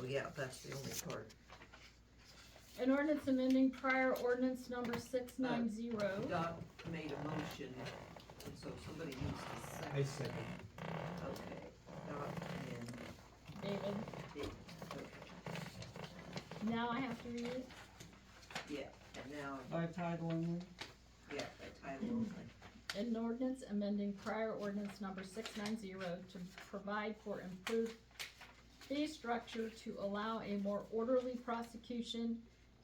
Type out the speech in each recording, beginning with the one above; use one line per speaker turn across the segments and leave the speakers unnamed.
Oh, yeah, that's the only part.
An ordinance amending prior ordinance number six nine zero.
Doc made a motion, and so somebody needs to second.
I second.
Okay, Doc and,
David,
okay,
now I have to read it?
and now,
By title only?
yeah, by title only.
An ordinance amending prior ordinance number six nine zero to provide for improved fee structure to allow a more orderly prosecution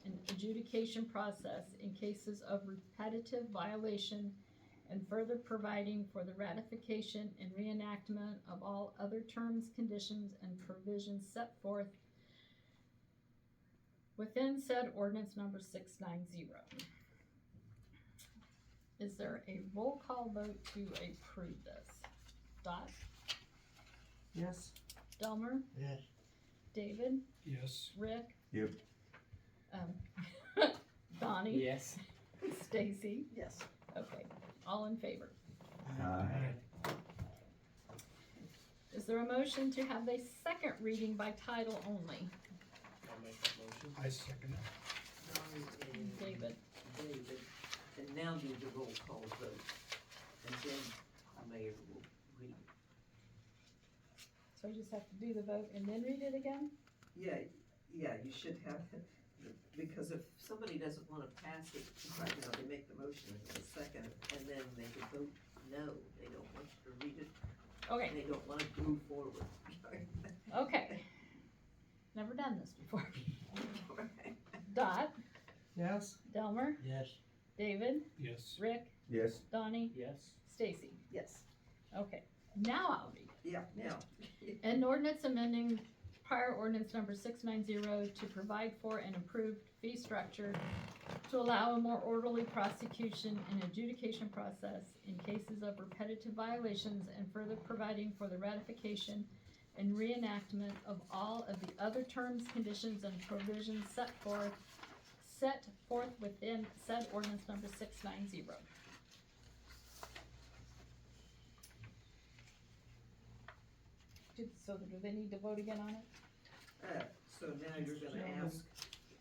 and adjudication process in cases of repetitive violation and further providing for the ratification and reenactment of all other terms, conditions, and provisions set forth within said ordinance number six nine zero. Is there a roll call vote to approve this? Dot,
Yes.
Delmer,
Yes.
David,
Yes.
Rick?
Yep.
Um, Donnie,
Yes.
Stacy,
Yes.
okay, all in favor.
Aye.
Is there a motion to have a second reading by title only?
I'll make that motion. I second it.
Doc and
David,
David, and now do the roll call vote, and then the mayor will read.
so I just have to do the vote and then read it again?
Yeah, yeah, you should have, because if somebody doesn't wanna pass it right now, they make the motion in a second, and then they can vote no, they don't want you to read it,
Okay,
and they don't wanna move forward.
okay. Never done this before.
Alright.
Dot,
Yes?
Delmer,
Yes.
David,
Yes.
Rick,
Yes.
Donnie,
Yes.
Stacy,
Yes,
okay, now I'll read it.
yeah, now,
An ordinance amending prior ordinance number six nine zero to provide for an improved fee structure to allow a more orderly prosecution and adjudication process in cases of repetitive violations and further providing for the ratification and reenactment of all of the other terms, conditions, and provisions set forth, set forth within said ordinance number six nine zero. So do they need to vote again on it?
uh, so now you're gonna ask,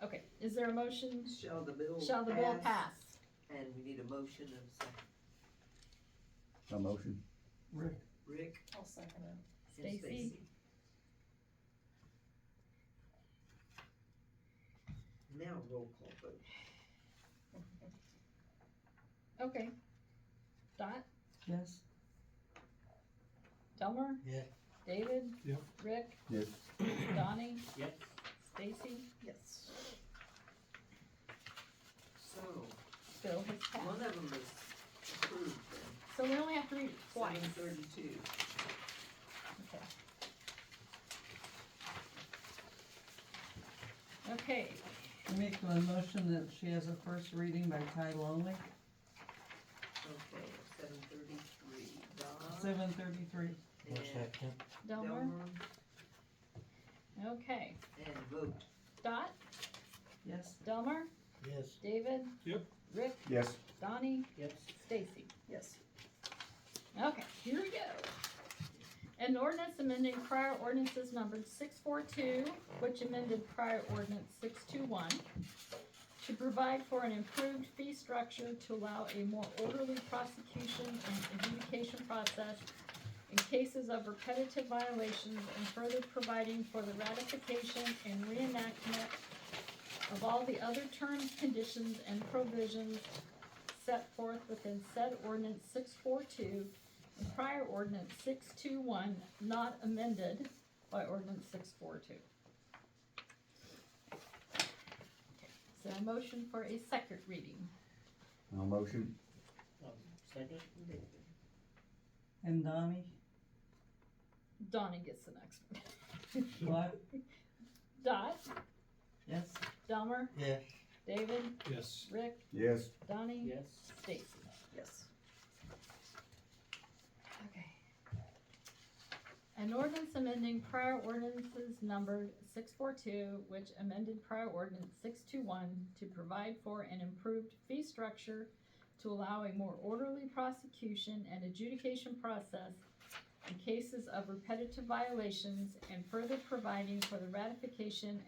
Okay, is there a motion?
shall the bill pass?
Shall the bill pass?
And we need a motion of second,
A motion?
Rick?
Rick
I'll second it.
and
Stacy.
Stacy. Now roll call vote,
Okay. Dot,
Yes?
Delmer?
Yeah.
David?
Yep.
Rick?
Yes.
Donnie?
Yes.
Stacy?
yes. So,
Bill has
One
passed.
of them is approved then,
So we only have to read it twice.
seven thirty-two.
Okay. Okay,
I make the motion that she has a first reading by title only,
Okay, seven thirty-three, Don
seven thirty-three.
and
Delmer?
Delmer,
Okay.
and vote.
Dot,
Yes?
Delmer?
Yes.
David?
Yep.
Rick?
Yes.
Donnie?
Yes.
Stacy?
Yes.
Okay, here we go. An ordinance amending prior ordinances numbered six four two, which amended prior ordinance six two one, to provide for an improved fee structure to allow a more orderly prosecution and adjudication process in cases of repetitive violations and further providing for the ratification and reenactment of all the other terms, conditions, and provisions set forth within said ordinance six four two and prior ordinance six two one not amended by ordinance six four two. So a motion for a second reading.
A motion?
Second?
And Donnie?
Donnie gets the next one.
What?
Dot,
Yes?
Delmer,
Yeah.
David,
Yes.
Rick,
Yes.
Donnie,
Yes.
Stacy.
Yes.
Okay. An ordinance amending prior ordinances numbered six four two, which amended prior ordinance six two one to provide for an improved fee structure to allow a more orderly prosecution and adjudication process in cases of repetitive violations and further providing for the ratification